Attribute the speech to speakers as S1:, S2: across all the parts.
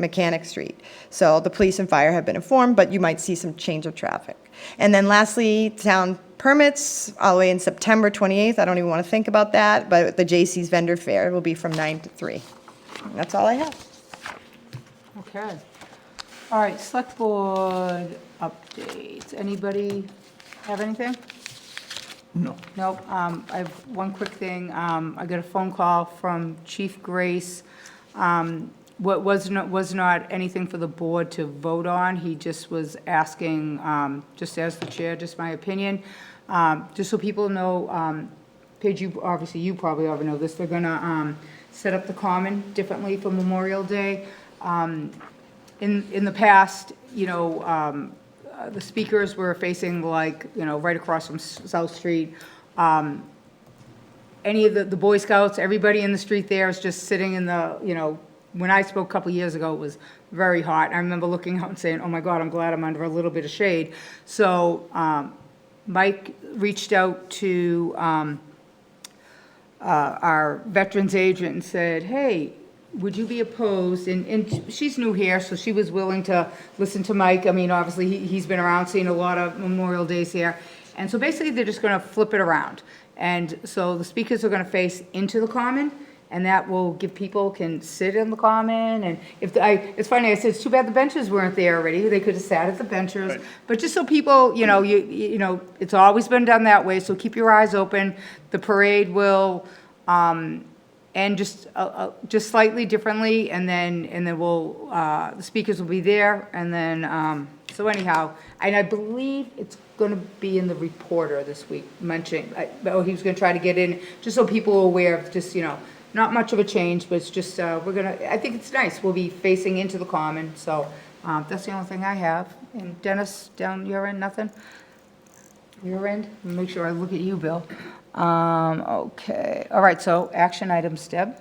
S1: Mechanic Street. So the police and fire have been informed, but you might see some change of traffic. And then lastly, town permits, all the way in September 28th, I don't even want to think about that, but the J.C.'s vendor fair will be from 9 to 3. And That's all I have.
S2: Okay. All right, select board updates. Anybody have anything?
S3: No.
S2: Nope. Um, I have one quick thing. Um, I got a phone call from Chief Grace. Um, What was not, was not anything for the board to vote on. He just was asking, um, just as the chair, just my opinion. Um, Just so people know, um, Paige, you, obviously, you probably already know this. They're gonna, um, set up the common differently for Memorial Day. Um, in, in the past, you know, um, uh, the speakers were facing like, you know, right across from S- South Street. Um, Any of the, the Boy Scouts, everybody in the street there is just sitting in the, you know, when I spoke a couple years ago, it was very hot. I remember looking out and saying, oh my God, I'm glad I'm under a little bit of shade. So, um, Mike reached out to, um, uh, our veterans agent and said, hey, would you be opposed? And, and she's new here, so she was willing to listen to Mike. I mean, obviously, he, he's been around, seen a lot of Memorial Days here. And so basically, they're just gonna flip it around. And so the speakers are gonna face into the common, and that will give people can sit in the common. And if, the- I, it's funny, I said, it's too bad the benches weren't there already. They could have sat at the benches. But just so people, you know, you, you know, it's always been done that way, so keep your eyes open. The parade will, um, and just, uh, uh, just slightly differently, and then, and then we'll, uh, the speakers will be there, and then, um, so anyhow, and I believe it's gonna be in the reporter this week, mentioning, I- oh, he was gonna try to get in, just so people are aware of just, you know, not much of a change, but it's just, uh, we're gonna, I think it's nice, we'll be facing into the common, so, um, that's the only thing I have. And Dennis, down your end, nothing? Your end? Make sure I look at you, Bill. Um, okay, all right, so action items, Deb?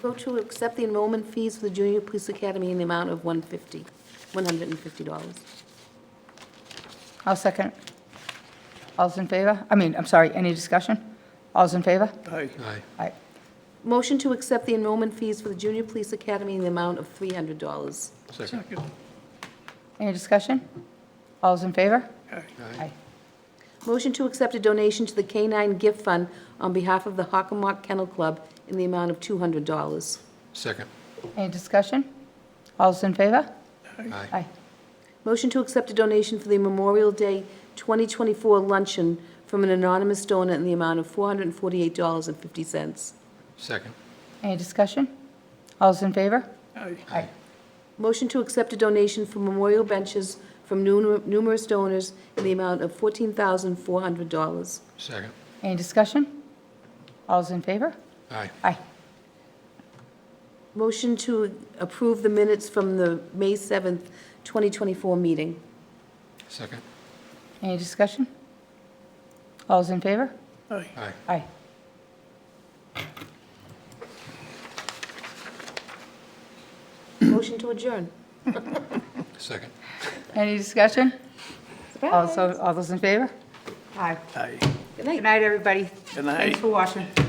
S4: Vote to accept the enrollment fees for the Junior Police Academy in the amount of 150 $150.
S2: I'll second. All's in favor? I mean, I'm sorry, any discussion? All's in favor?
S3: Aye.
S2: All right,
S4: Motion to accept the enrollment fees for the Junior Police Academy in the amount of $300.
S3: Second.
S2: any discussion? All's in favor?
S3: Aye.
S2: Aye.
S4: Motion to accept a donation to the K-9 Gift Fund on behalf of the Hockomock Kennel Club in the amount of $200.
S5: Second.
S2: Any discussion? All's in favor?
S5: Aye.
S2: Aye.
S4: Motion to accept a donation for the Memorial Day 2024 luncheon from an anonymous donor in the amount of $448.50.
S5: Second.
S2: Any discussion? All's in favor?
S3: Aye.
S2: Aye.
S4: Motion to accept a donation for memorial benches from numer- numerous donors in the amount of $14,400.
S5: Second.
S2: Any discussion? All's in favor?
S5: Aye.
S2: Aye.
S4: Motion to approve the minutes from the May 7th, 2024 meeting.
S5: Second.
S2: Any discussion? All's in favor?
S3: Aye.
S5: Aye.
S2: Aye.
S4: Motion to adjourn.
S5: Second.
S2: Any discussion? Also, all those in favor? Aye.
S3: Aye.
S4: Good night.
S2: Good night, everybody.
S3: Good night.
S2: Thanks for watching.